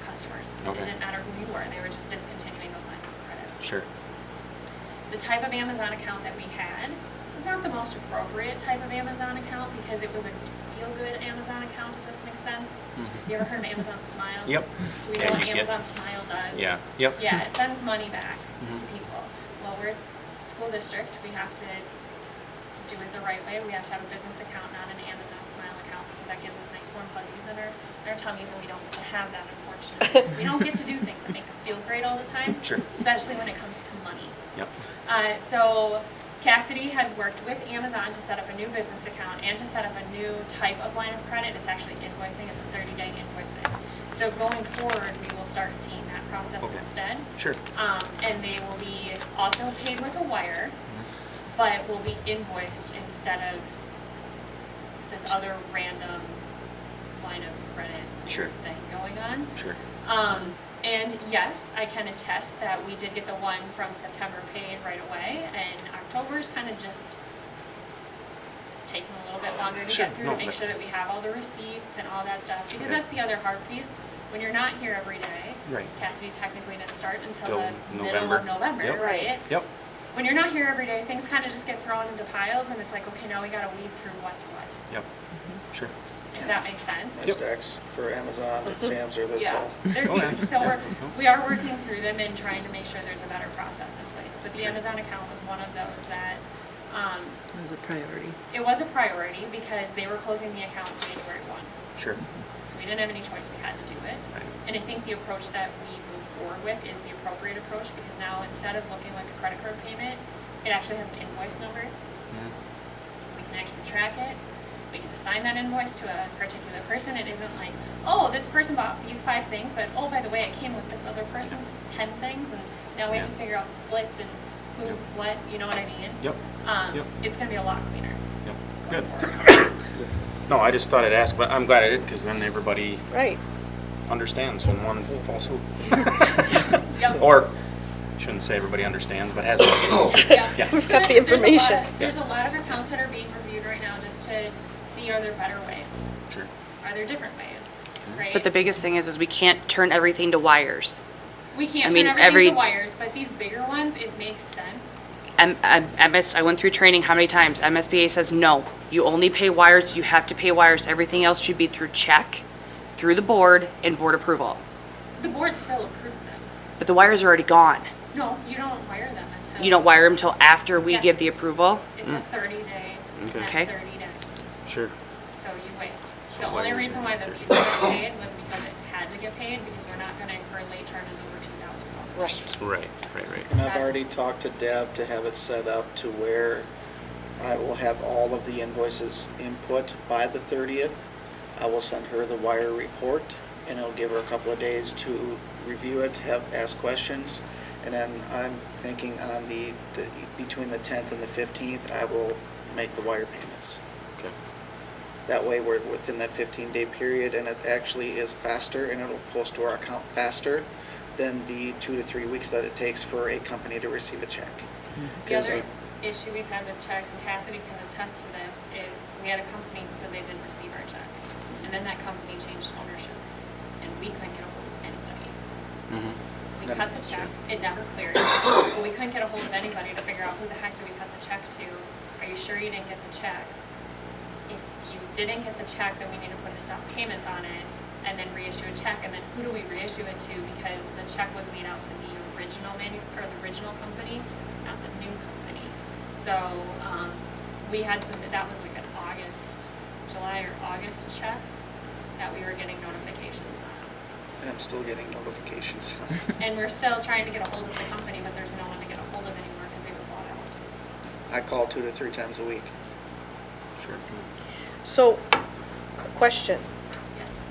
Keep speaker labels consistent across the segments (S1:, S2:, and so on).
S1: It
S2: Okay.
S1: didn't matter who you were, they were just discontinuing those lines of credit.
S2: Sure.
S1: The type of Amazon account that we had was not the most appropriate type of Amazon account because it was a feel-good Amazon account, if this makes sense. You ever heard of Amazon Smile?
S2: Mm-hmm. Yep.
S1: We know
S2: Yeah,
S1: what
S2: you get-
S1: Amazon Smile does.
S2: Yeah, yep.
S1: Yeah, it sends money back
S2: Mhm.
S1: to people. Well, we're a school district, we have to do it the right way. We have to have a business account, not an Amazon Smile account, because that gives us nice warm fuzzies in our, in our tummies, and we don't get to have that unfortunately. We don't get to do things that make us feel great all the time.
S2: Sure.
S1: Especially when it comes to money.
S2: Yep.
S1: Uh, so Cassidy has worked with Amazon to set up a new business account and to set up a new type of line of credit. It's actually invoicing, it's a 30-day invoicing. So going forward, we will start seeing that process
S2: Okay.
S1: instead.
S2: Sure.
S1: Um, and they will be also paid with a wire,
S2: Mm-hmm.
S1: but will be invoiced instead of this other random line of credit
S2: Sure.
S1: thing going on.
S2: Sure.
S1: Um, and yes, I can attest that we did get the one from September paid right away, and October's kind of just, it's taking a little bit longer to
S2: Sure,
S1: get through
S2: no,
S1: to make
S2: but-
S1: sure that we have all the receipts and all that stuff, because
S2: Okay.
S1: that's the other hard piece. When you're not here every day,
S2: Right.
S1: Cassidy technically didn't start until
S2: Till
S1: the middle of
S2: November.
S1: November,
S2: Yep.
S1: right?
S2: Yep.
S1: When you're not here every day, things kind of just get thrown into piles, and it's like, okay, now we gotta weed through what's what,
S2: Yep. Sure.
S1: if that makes sense.
S3: My
S2: Yep.
S3: stacks for Amazon and Sam's are this
S1: Yeah,
S3: tall.
S1: they're
S2: Okay.
S1: huge, so
S2: Oh, Yeah.
S1: we're, we are working through them and trying to make sure there's a better process in place. But the
S2: Sure.
S1: Amazon account was one of those that, um,
S4: That was a priority.
S1: it was a priority because they were closing the account January one.
S2: Sure.
S1: So we didn't have any choice, we had to do it.
S2: Right.
S1: And I think the approach that we move forward with is the appropriate approach because now instead of looking like a credit card payment, it actually has an invoice number.
S2: Mhm.
S1: We can actually track it. We can assign that invoice to a particular person. It isn't like, oh, this person bought these five things, but oh, by the way, it came with this other person's ten things, and now we have to
S2: Yeah.
S1: figure out the split and who,
S2: Yep.
S1: what, you know what I mean?
S2: Yep.
S1: Um,
S2: Yep.
S1: It's gonna be a lot cleaner.
S2: Yep.
S1: going
S2: Good.
S1: forward.
S2: No, I just thought I'd ask, but I'm glad I did because then everybody
S4: Right.
S2: understands when one falls swoop.
S1: Yep.
S2: Or shouldn't say everybody understands, but has.
S1: Yeah.
S4: We've
S1: So
S4: got the
S1: there's- there's a lot-
S4: information.
S1: There's a lot of accounts that are being reviewed right now just to see are there better ways?
S2: Sure.
S1: Are there different
S2: Mm-hmm.
S1: ways, right?
S5: But the biggest thing is, is we can't turn everything to wires.
S1: We
S5: I
S1: can't
S5: mean,
S1: turn everything
S5: every-
S1: to wires, but these bigger ones, it makes sense.
S5: M- M- MS, I went through training how many times? MSBA says, no, you only pay wires, you have to pay wires. Everything else should be through check, through the board, and board approval.
S1: The board still approves them.
S5: But the wires are already gone.
S1: No, you don't wire them until.
S5: You don't wire them till after we
S1: Yeah.
S5: give the approval.
S1: It's a thirty day, not
S5: Okay.
S1: thirty days,
S2: Sure.
S1: so you wait.
S2: So
S1: The
S2: why
S1: only
S2: would
S1: reason
S2: you
S1: why
S2: do
S1: the
S2: it?
S1: visa got paid was because it had to get paid, because we're not gonna incur late charges over two thousand dollars.
S4: Right.
S2: Right. Right. Right.
S3: And I've
S1: That's-
S3: already talked to Deb to have it set up to where I will have all of the invoices input by the 30th. I will send her the wire report, and I'll give her a couple of days to review it, have, ask questions. And then I'm thinking on the, the- between the 10th and the 15th, I will make the wire payments.
S2: Okay.
S3: That way, we're within that 15-day period, and it actually is faster, and it'll post to our account faster than the two to three weeks that it takes for a company to receive a check.
S1: The
S3: 'Cause
S1: other
S3: it-
S1: issue we've had with checks, and Cassidy can attest to this, is we had a company who said they didn't receive our check. And then that company changed ownership, and we couldn't get a hold of anybody. We
S3: Never-
S1: cut the check, it never cleared, but we couldn't get a hold of anybody to figure out who the heck did we cut the check to? Are you sure you didn't get the check? If you didn't get the check, then we need to put a stop payment on it and then reissue a check, and then who do we reissue it to? Because the check was made out to the original manu, or the original company, not the new company. So, um, we had some, that was like an August, July or August check that we were getting notifications on.
S3: And I'm still getting notifications.
S1: And we're still trying to get a hold of the company, but there's no one to get a hold of anymore because they were bought out.
S3: I call two to three times a week.
S2: Sure.
S4: So, question.
S1: Yes.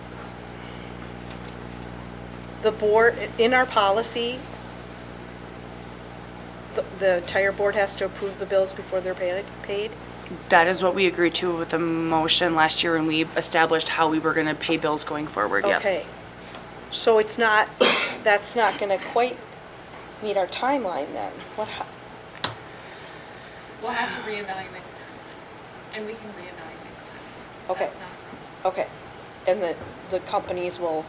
S4: The board, in our policy, the, the entire board has to approve the bills before they're paid, paid?
S5: That is what we agreed to with the motion last year when we established how we were gonna pay bills going forward, yes.
S4: Okay. So it's not, that's not gonna quite meet our timeline then? What, hap-
S1: We'll have to reevaluate the timeline, and we can reevaluate the timeline.
S4: Okay.
S1: That's not a problem.
S4: okay. And the, the companies will